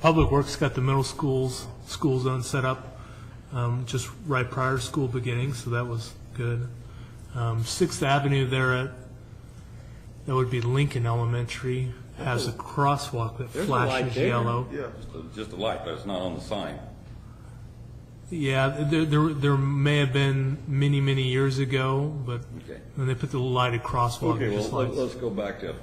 Public Works got the middle school's, school zone set up um, just right prior to school beginning, so that was good. Um, Sixth Avenue there at, that would be Lincoln Elementary, has a crosswalk that There's a light flashes there. yellow. Yeah. Just a light, but it's not on the sign. Yeah, there, there, there may have been many, many years ago, but Okay. when they put the lighted crosswalk, Okay, it well, just let- lights. let's go back to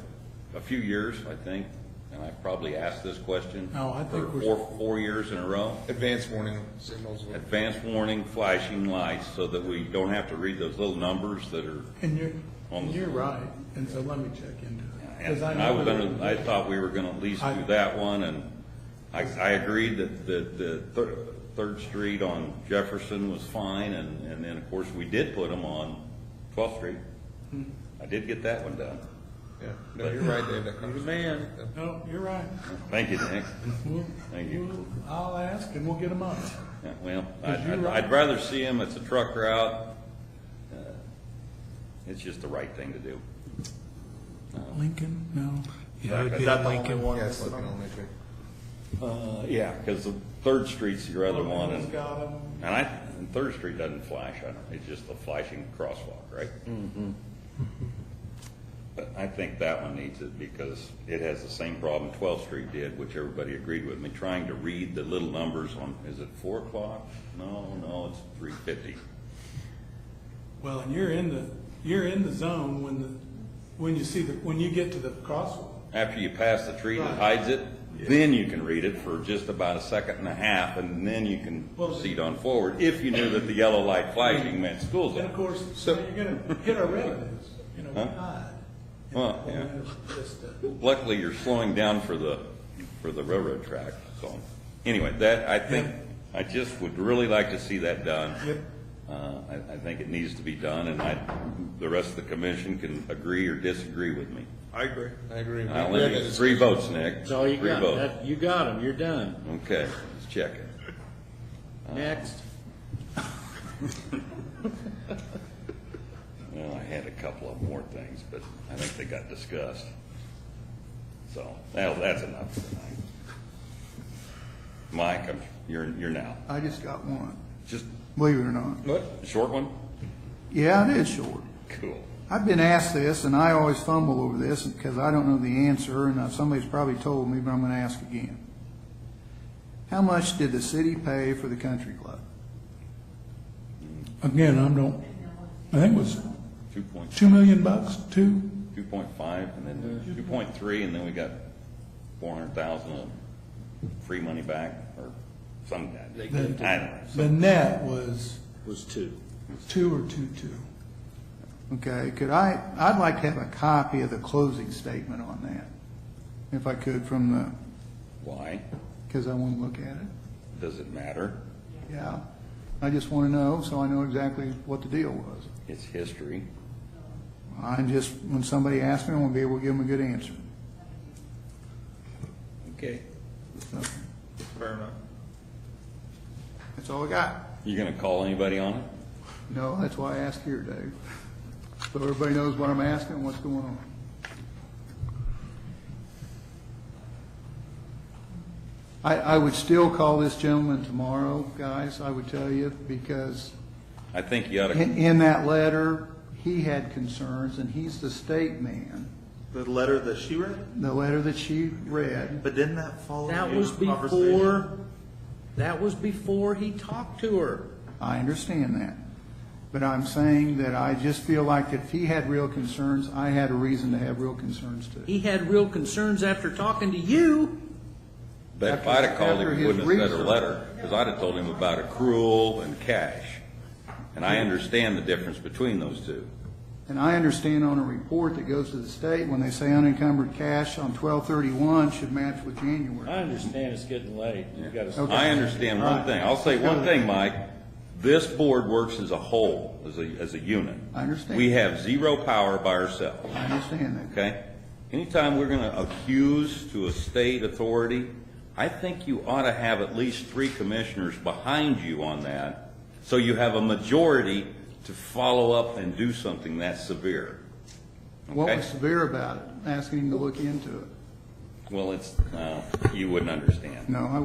a few years, I think, and I probably asked this question. No, I think for we're- Four, four years in a row. Advanced warning signals. Advanced warning, flashing lights, so that we don't have to read those little numbers that are, And you're, On the- you're right, and so let me check into it. 'Cause and and I was know- under, I thought we were gonna at least I- do that one, and I, I agreed that the, the Thir- Third Street on Jefferson was fine, and, and then, of course, we did put them on Twelfth Street. I did get that one done. Yeah, no, you're right, they You're have that the conversation. man. No, you're right. Thank you, Nick. We'll- Thank you. we'll- I'll ask and we'll get them up. Yeah, Well, Because I'd- you're I'd, right. I'd rather see him, it's a truck route. Uh, It's just the right thing to do. Lincoln, no. Yeah, it would Is be that at the only Lincoln. Yeah, it's looking only true. Uh, yeah. Because the Third Street's your other one, Lincoln's and, got 'em. and I, and Third Street doesn't flash, I don't, it's just a flashing crosswalk, right? But I think that one needs it because it has the same problem Twelfth Street did, which everybody agreed with me, trying to read the little numbers on, is it four o'clock? No, no, it's three fifty. Well, and you're in the, you're in the zone when the, when you see the, when you get to the crosswalk. After you pass the tree that hides it, then you can read it for just about a second and a half, and then you can Well, proceed on forward, if you knew that the yellow light flashing meant school And of zone. course, So- you're gonna hit our revenues, you know, we Huh? hide. Well, yeah. And that's just, uh, Luckily, you're slowing down for the, for the railroad track, so, anyway, that, I think, I just would really like to see that done. Yep. Uh, I, I think it needs to be done, and I, the rest of the commission can agree or disagree with me. I agree. I agree. I only need three votes, Nick. That's all you Three got. votes. That- You got them, you're done. Okay, let's check it. Next. Well, I had a couple of more things, but I think they got discussed. So, that, that's enough tonight. Mike, I'm, you're, you're now. I just got one, Just believe it or not. What? a short one? Yeah, it is short. Cool. I've been asked this, and I always fumble over this because I don't know the answer, and uh, somebody's probably told me, but I'm going to ask again. How much did the city pay for the country club? Again, I don't, I think it was Two point, two million bucks, two, two point five, and then two point three, and then we got four hundred thousand of free money back, or some, I don't know. the net was Was two. two or two-two. Okay, could I, I'd like to have a copy of the closing statement on that, if I could, from the, Why? because I want to look at it. Does it matter? Yeah, I just want to know, so I know exactly what the deal was. It's history. I'm just, when somebody asks me, I want to be able to give them a good answer. Okay. Fair enough. That's all I got. You gonna call anybody on it? No, that's why I ask here, Dave. So everybody knows what I'm asking and what's going on. I, I would still call this gentleman tomorrow, guys, I would tell you, because I think you ought to in, in that letter, he had concerns, and he's the state man. The letter that she read, The letter that she read, but didn't that follow? That the was conversation? before, that was before he talked to her. I understand that. But I'm saying that I just feel like if he had real concerns, I had a reason to have real concerns too. He had real concerns after talking to you. But if After- I'd have called him, after he wouldn't have his said a research. letter, because I'd have told him about accrual and cash. And I understand the difference between those two. And I understand on a report that goes to the state, when they say unencumbered cash on twelve thirty-one should match with January. I understand it's getting late, you gotta Okay. I understand one thing, I'll say one thing, Mike, this board works as a whole, as a, as a unit. I understand. We have zero power by ourselves, I understand that. okay? Anytime we're gonna accuse to a state authority, I think you ought to have at least three commissioners behind you on that, so you have a majority to follow up and do something that severe. What Okay. was severe about it? Asking him to look into it. Well, it's, uh, you wouldn't understand. No, I